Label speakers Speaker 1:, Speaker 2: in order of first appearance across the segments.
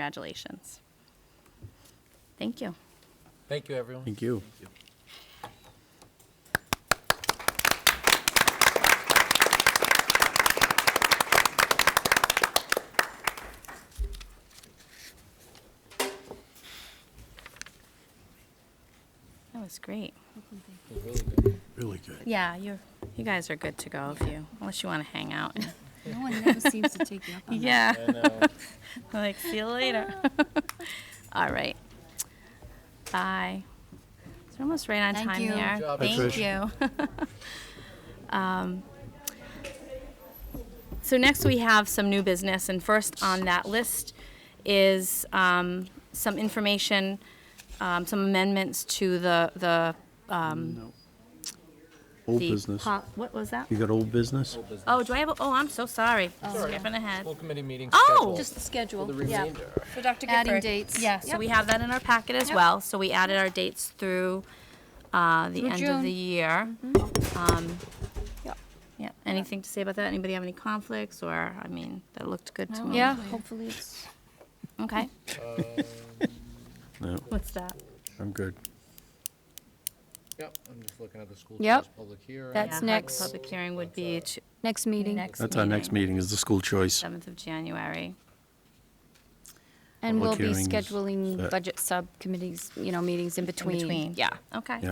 Speaker 1: Congratulations. Thank you.
Speaker 2: Thank you, everyone.
Speaker 3: Thank you.
Speaker 1: That was great.
Speaker 3: Really good.
Speaker 1: Yeah, you you guys are good to go if you unless you want to hang out. and-
Speaker 4: No one never seems to take you up on that.
Speaker 1: yeah. like see you later. All right. Bye. It's almost right on
Speaker 4: Thank
Speaker 1: time
Speaker 4: you.
Speaker 1: there.
Speaker 4: Good
Speaker 2: job,
Speaker 1: Thank you.
Speaker 2: Trish.
Speaker 1: Um, so next we have some new business, and first on that list is um, some information, um, some amendments to the the um,
Speaker 3: Old
Speaker 1: the
Speaker 3: business.
Speaker 1: po- what was that?
Speaker 3: You got old business?
Speaker 1: Oh, do I have? A, oh, I'm so sorry. Skipping ahead.
Speaker 2: Full committee meeting
Speaker 1: Oh!
Speaker 2: scheduled.
Speaker 4: Just the schedule.
Speaker 2: The remainder.
Speaker 5: For Dr.
Speaker 4: Adding
Speaker 5: Gifford.
Speaker 4: dates.
Speaker 1: Yeah, so we have that in our packet as well. So we added our dates through uh, the
Speaker 4: Through
Speaker 1: end of
Speaker 4: June. Mm-hmm.
Speaker 1: the year. Um,
Speaker 5: Yep.
Speaker 1: Yeah, anything to say about that? Anybody have any conflicts or, I mean, that looked good to me.
Speaker 4: Yeah, Mm-hmm. hopefully it's,
Speaker 1: Okay,
Speaker 3: No,
Speaker 1: what's that?
Speaker 3: I'm good.
Speaker 2: Yep, I'm just looking at the school
Speaker 4: Yep.
Speaker 2: choice public hearing.
Speaker 4: That's
Speaker 1: Yeah,
Speaker 4: next.
Speaker 1: Public hearing would be t-
Speaker 4: next meeting.
Speaker 1: next meeting.
Speaker 3: That's our next meeting is the school choice.
Speaker 1: 7th of January.
Speaker 4: And we'll
Speaker 3: Public
Speaker 4: be
Speaker 3: hearing is
Speaker 4: scheduling
Speaker 3: set.
Speaker 4: budget subcommittees, you know, meetings in between.
Speaker 1: between.
Speaker 4: Yeah.
Speaker 1: Okay.
Speaker 3: Yeah.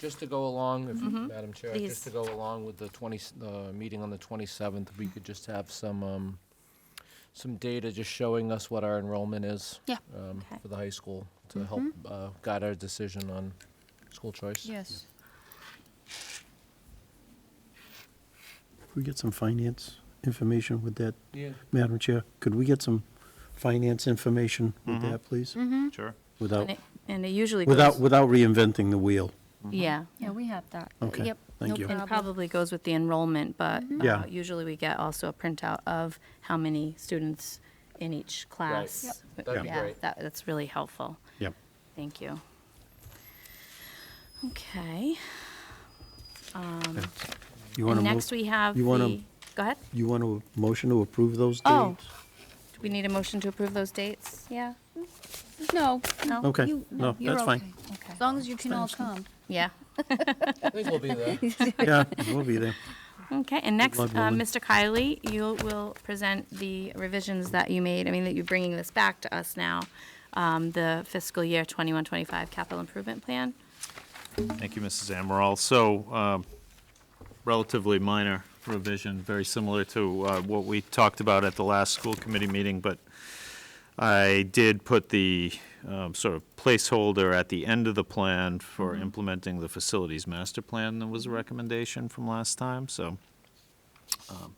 Speaker 2: Just to go along, if, Madam Chair,
Speaker 1: Mm-hmm. Please.
Speaker 2: just to go along with the 20, the meeting on the 27th, we could just have some, um, some data just showing us what our enrollment is.
Speaker 4: Yeah.
Speaker 2: um,
Speaker 1: Okay. Mm-hmm.
Speaker 2: For the high school, to help uh, guide our decision on school choice.
Speaker 4: Yes.
Speaker 3: Could we get some finance information with that,
Speaker 2: Yeah.
Speaker 3: Madam Chair? Could we get some finance information with that, please?
Speaker 1: Mm-hmm.
Speaker 6: Sure.
Speaker 3: Without,
Speaker 1: And it- And it usually goes. Mm-hmm.
Speaker 3: without, without reinventing the wheel.
Speaker 1: Yeah.
Speaker 4: Yeah, we have that.
Speaker 3: Okay,
Speaker 4: Yep,
Speaker 3: thank
Speaker 4: no
Speaker 3: you.
Speaker 1: And
Speaker 4: problem.
Speaker 1: probably goes with the enrollment, but
Speaker 3: Yeah.
Speaker 1: uh, usually we get also a printout of how many students in each class.
Speaker 2: That'd
Speaker 3: be
Speaker 1: Yeah,
Speaker 2: great.
Speaker 1: that- That's really helpful.
Speaker 3: Yep.
Speaker 1: Thank you. Okay.
Speaker 3: You want
Speaker 1: And
Speaker 3: to
Speaker 1: next we have the,
Speaker 3: you wanna-
Speaker 1: go ahead.
Speaker 3: You want to motion to approve those
Speaker 1: Oh.
Speaker 3: dates?
Speaker 1: Do we need a motion to approve those dates? Yeah?
Speaker 4: No.
Speaker 1: No?
Speaker 3: Okay,
Speaker 4: you-
Speaker 3: no,
Speaker 4: you're
Speaker 3: that's fine.
Speaker 4: okay. As long as you can all come.
Speaker 1: Yeah.
Speaker 2: I think we'll be there.
Speaker 3: Yeah, we'll be there.
Speaker 1: Okay, and next, uh,
Speaker 3: luck, Roland.
Speaker 1: Mr. Kiley, you will present the revisions that you made, I mean, that you're bringing this back to us now, um, the fiscal year 2125 capital improvement plan.
Speaker 6: Thank you, Mrs. Amaral. So um, relatively minor revision, very similar to uh, what we talked about at the last school committee meeting, but I did put the um, sort of placeholder at the end of the plan for implementing the facilities master plan that was a recommendation from last time, so um,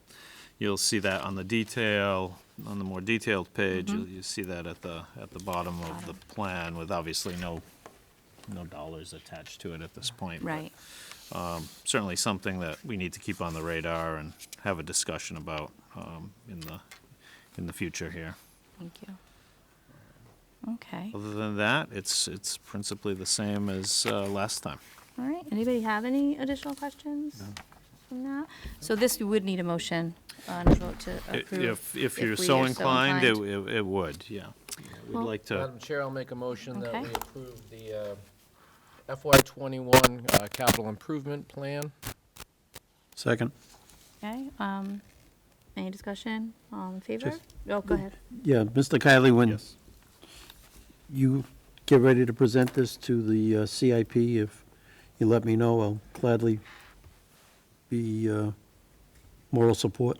Speaker 6: you'll see that on the detail, on the more detailed page, you'll you see that at the, at the bottom of the plan with obviously no, no dollars attached to it at this point. but
Speaker 1: Right.
Speaker 6: Certainly something that we need to keep on the radar and have a discussion about um, in the, in the future here.
Speaker 1: Thank you. Okay,
Speaker 6: Other than that, it's, it's principally the same as uh, last time.
Speaker 1: all right. Anybody have any additional questions? from that? So this, you would need a motion on a vote to approve.
Speaker 6: If, if you're
Speaker 1: we
Speaker 6: so
Speaker 1: are
Speaker 6: inclined, it, it it would, yeah. We'd
Speaker 1: Well-
Speaker 6: like to,
Speaker 2: Madam Chair, I'll make a motion that
Speaker 1: Okay.
Speaker 2: we approve the uh, FY '21 uh, capital improvement plan.
Speaker 3: Second.
Speaker 1: Okay, um, any discussion? All in favor?
Speaker 3: Just-
Speaker 1: Oh, go ahead.
Speaker 3: Yeah, Mr. Kiley, when
Speaker 6: yes.
Speaker 3: you get ready to present this to the uh, CIP, if you let me know, I'll gladly be uh, moral support.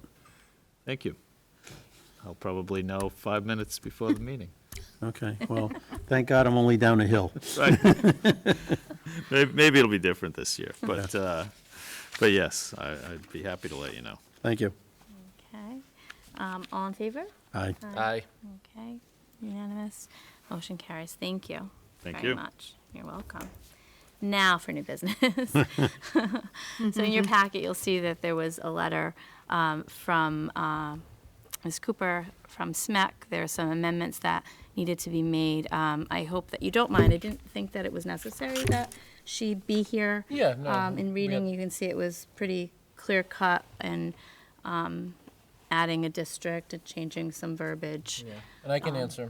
Speaker 6: Thank you. I'll probably know five minutes before the meeting.
Speaker 3: Okay, well, thank God I'm only down a hill.
Speaker 6: Right. Maybe, maybe it'll be different this year, but, uh, but yes, I, I'd be happy to let you know.
Speaker 3: Thank you.
Speaker 1: Okay, um, all in favor?
Speaker 3: Aye.
Speaker 2: Aye.
Speaker 1: Okay, unanimous. Motion carries. Thank you.
Speaker 6: Thank
Speaker 1: very
Speaker 6: you.
Speaker 1: much. You're welcome. Now for new business. so in your packet, you'll see that there was a letter um, from um Ms. Cooper from SMEC. There are some amendments that needed to be made. Um, I hope that you don't mind. I didn't think that it was necessary that she be here.
Speaker 2: Yeah, no,
Speaker 1: Um, in
Speaker 2: we
Speaker 1: reading,
Speaker 2: had-
Speaker 1: you can see it was pretty clear cut and um, adding a district and changing some verbiage.
Speaker 2: And I can answer.